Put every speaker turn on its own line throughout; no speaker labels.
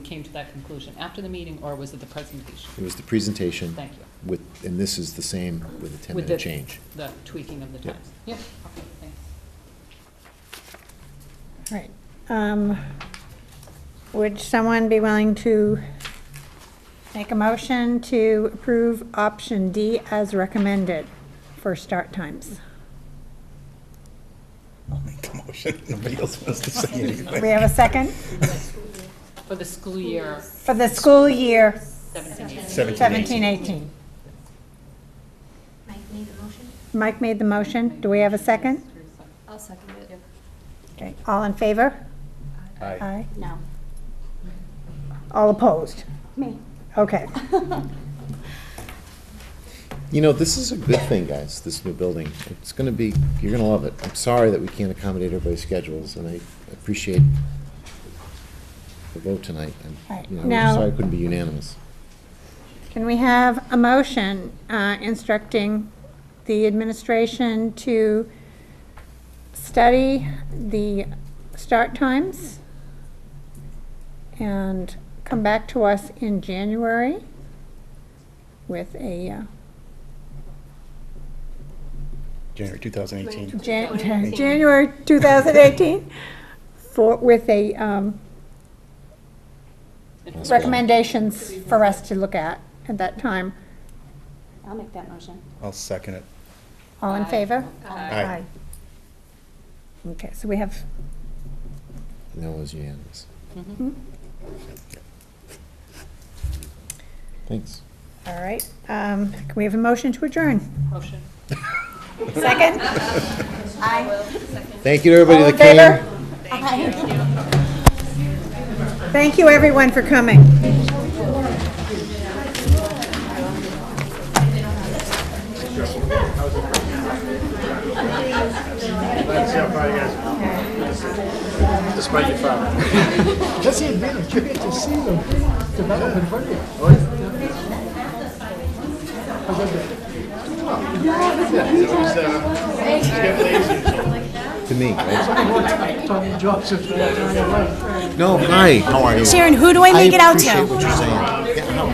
came to that conclusion? After the meeting, or was it the presentation?
It was the presentation
Thank you.
with, and this is the same with a
With the-
ten-minute change.
The tweaking of the
Yep.
times? Yep. Okay, thanks.
Right. Um, Would someone be willing to make a motion to approve option D as recommended for start times?
I'll make the motion. Nobody else wants to say anything.
We have a second
For the school year
for the school year
seventeen eighteen.
Seventeen, eighteen.
seventeen eighteen.
Mike made the motion?
Mike made the motion. Do we have a second?
I'll second it.
Okay, all in favor?
Aye.
Aye.
No.
All opposed?
Me.
Okay.
You know, this is a good thing, guys, this new building. It's gonna be, you're gonna love it. I'm sorry that we can't accommodate everybody's schedules, and I appreciate the vote tonight. I'm,
Right.
you know, I'm
Now-
sorry it couldn't be unanimous.
Can we have a motion uh, instructing the administration to study the start times and come back to us in January with a, uh,
January 2018.
Jan- January 2018, for, with a, um, recommendations for us to look at at that time.
I'll make that motion.
I'll second it.
All in
Aye.
favor?
Aye.
Okay, so we have
And that was unanimous.
Mm-hmm.
hmm?
Thanks.
All right, um, can we have a motion to adjourn?
Motion.
Second?
Thank you to everybody
All in
that came.
favor? Thank you, everyone, for coming.
Jesse and Vina, you get to see them develop in front of you.
To me. right?
Tommy Joseph, that's on your right.
No, hi, how are you?
Sharon, who do I make it out to?
appreciate what you're saying. Yeah, no.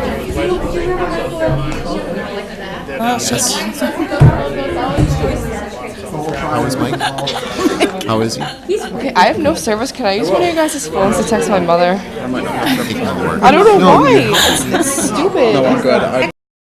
Oh,
How is Mike? How is he?
Okay, I have no service. Can I use one of your guys' phones to text my mother?
I
I don't know
No,
why.
you're-
It's, it's stupid.
I'm good. I-